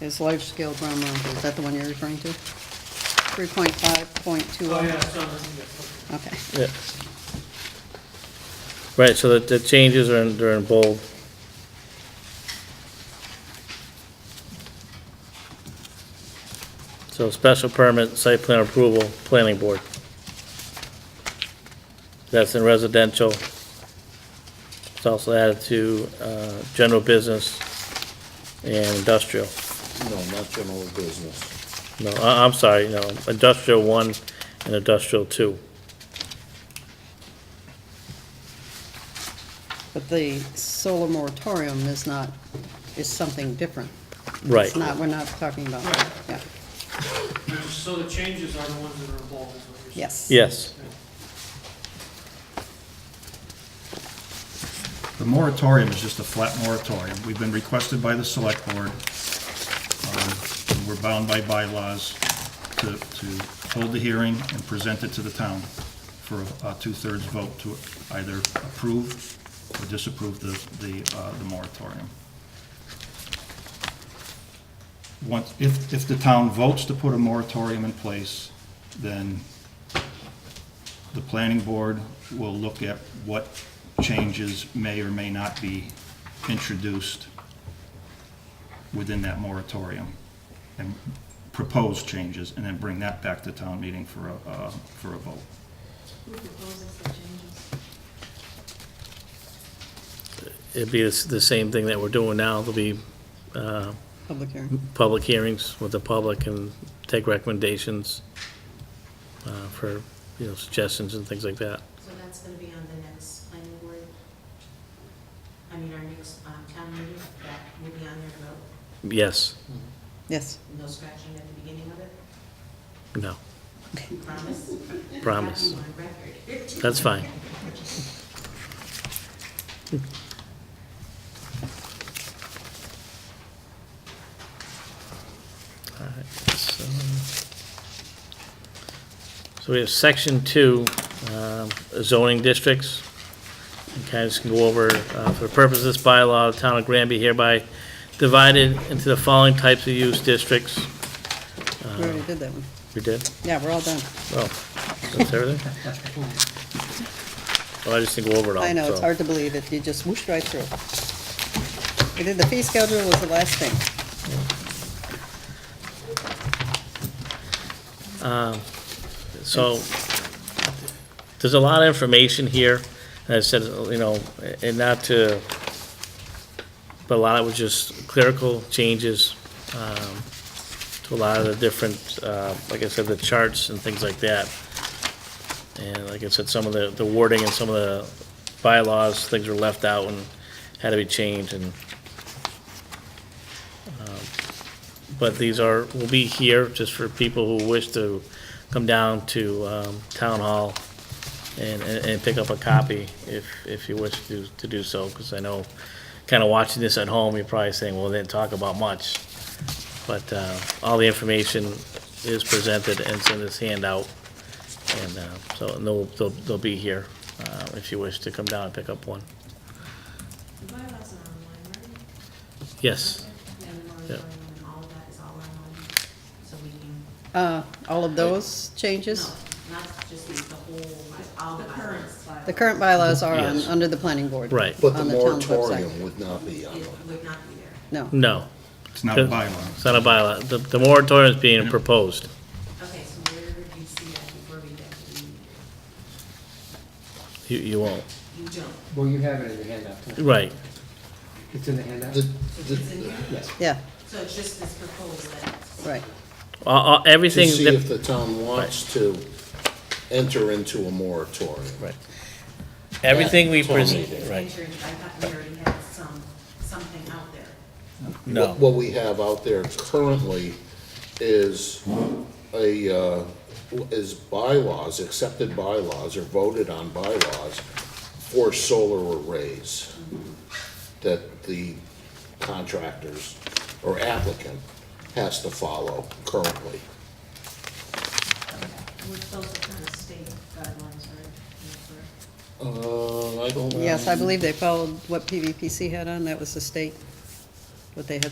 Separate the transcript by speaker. Speaker 1: is life scale ground mounted. Is that the one you're referring to? Three point five point two
Speaker 2: Oh, yeah,
Speaker 1: oh?
Speaker 2: it's on the-
Speaker 1: Okay.
Speaker 3: Yeah. Right, so the, the changes are in, they're in bold. So special permit, site plan approval, planning board. That's in residential. It's also added to, uh, general business and industrial.
Speaker 4: No, not general business.
Speaker 3: No, I, I'm sorry, no, industrial one and industrial two.
Speaker 1: But the solar moratorium is not, is something different.
Speaker 3: Right.
Speaker 1: It's not, we're not talking about that, yeah.
Speaker 2: So the changes are the ones that are involved, is what you're
Speaker 1: Yes.
Speaker 2: saying?
Speaker 3: Yes,
Speaker 5: The moratorium is just a flat moratorium. We've been requested by the select board. um, and We're bound by bylaws to, to hold the hearing and present it to the town for a two-thirds vote to either approve or disapprove the, the, uh, the moratorium. Once, if, if the town votes to put a moratorium in place, then the planning board will look at what changes may or may not be introduced within that moratorium, and propose changes, and then bring that back to town meeting for a, uh, for a vote.
Speaker 6: Who proposes the changes?
Speaker 3: it'd be the s- the same thing that we're doing now, there'll be, uh,
Speaker 1: Public hearing.
Speaker 3: public hearings with the public and take recommendations uh, for, you know, suggestions and things like that.
Speaker 6: So that's going to be on the next planning board, I mean, our next um, town meeting, that will be on there to vote,
Speaker 3: Yes,
Speaker 1: Yes,
Speaker 6: no scratching at the beginning of it,
Speaker 3: no,
Speaker 6: promise?
Speaker 3: promise.
Speaker 6: Have you on record?
Speaker 3: That's fine. All right, so so we have section two, um, zoning districts. Okay, I just can go over, uh, for the purpose of this bylaw, the town of Granby hereby divided into the following types of use districts. Uh,
Speaker 1: we already did that one.
Speaker 3: We did?
Speaker 1: Yeah, we're all done.
Speaker 3: Oh, that's everything? Well, I just think we'll over it all.
Speaker 1: I know, it's
Speaker 3: so-
Speaker 1: hard to believe it. You just whooshed right through. We did the fee schedule was the last thing.
Speaker 3: So, there's a lot of information here, and I said, you know, and not to, but a lot of it was just clerical changes, um, to a lot of the different, uh, like I said, the charts and things like that. And like I said, some of the, the wording and some of the bylaws, things were left out and had to be changed and, but these are, will be here just for people who wish to come down to um, Town Hall and, and and pick up a copy if, if you wish to, to do so, because I know, kind of watching this at home, you're probably saying, well, they didn't talk about much. But uh, all the information is presented and it's in this handout, and uh, so and they'll, they'll they'll be here uh, if you wish to come down and pick up one.
Speaker 6: The bylaws are online, right?
Speaker 3: Yes,
Speaker 6: And the moratorium and all of that is all online, so we can.
Speaker 1: Uh, all of those changes?
Speaker 6: No, Not just the the whole, like, all the bylaws.
Speaker 1: The current bylaws are on,
Speaker 3: Yes.
Speaker 1: under the planning board.
Speaker 3: right,
Speaker 4: But the
Speaker 1: On the town's website.
Speaker 4: moratorium would not be on
Speaker 6: It
Speaker 4: the
Speaker 6: would not be there.
Speaker 1: No,
Speaker 3: no,
Speaker 5: It's not a bylaw.
Speaker 3: it's not a bylaw, the, the moratorium is being proposed.
Speaker 6: Okay, so where did you see that before we got to the,
Speaker 3: You, you won't,
Speaker 6: you don't?
Speaker 7: Well, you have it in the handout, too.
Speaker 3: right,
Speaker 7: It's in the handout?
Speaker 4: The-
Speaker 6: So it's in
Speaker 4: the-
Speaker 6: here?
Speaker 7: Yes.
Speaker 1: yeah,
Speaker 6: So it's just this proposal that's.
Speaker 1: right.
Speaker 3: Uh, uh,
Speaker 4: To
Speaker 3: everything
Speaker 4: see
Speaker 3: that-
Speaker 4: if the town wants to enter into a moratorium.
Speaker 3: Right. Everything we
Speaker 4: That's what I'm
Speaker 3: present,
Speaker 4: reading.
Speaker 3: right,
Speaker 6: I thought we already had some, something out there.
Speaker 3: no,
Speaker 4: What- What we have out there currently is a, uh, is bylaws, accepted bylaws or voted on bylaws for solar arrays that the contractors or applicant has to follow currently.
Speaker 6: Which those are kind of state guidelines, right?
Speaker 4: Uh, I don't.
Speaker 1: Yes, I believe they followed what PVPC had on. That was the state, what they had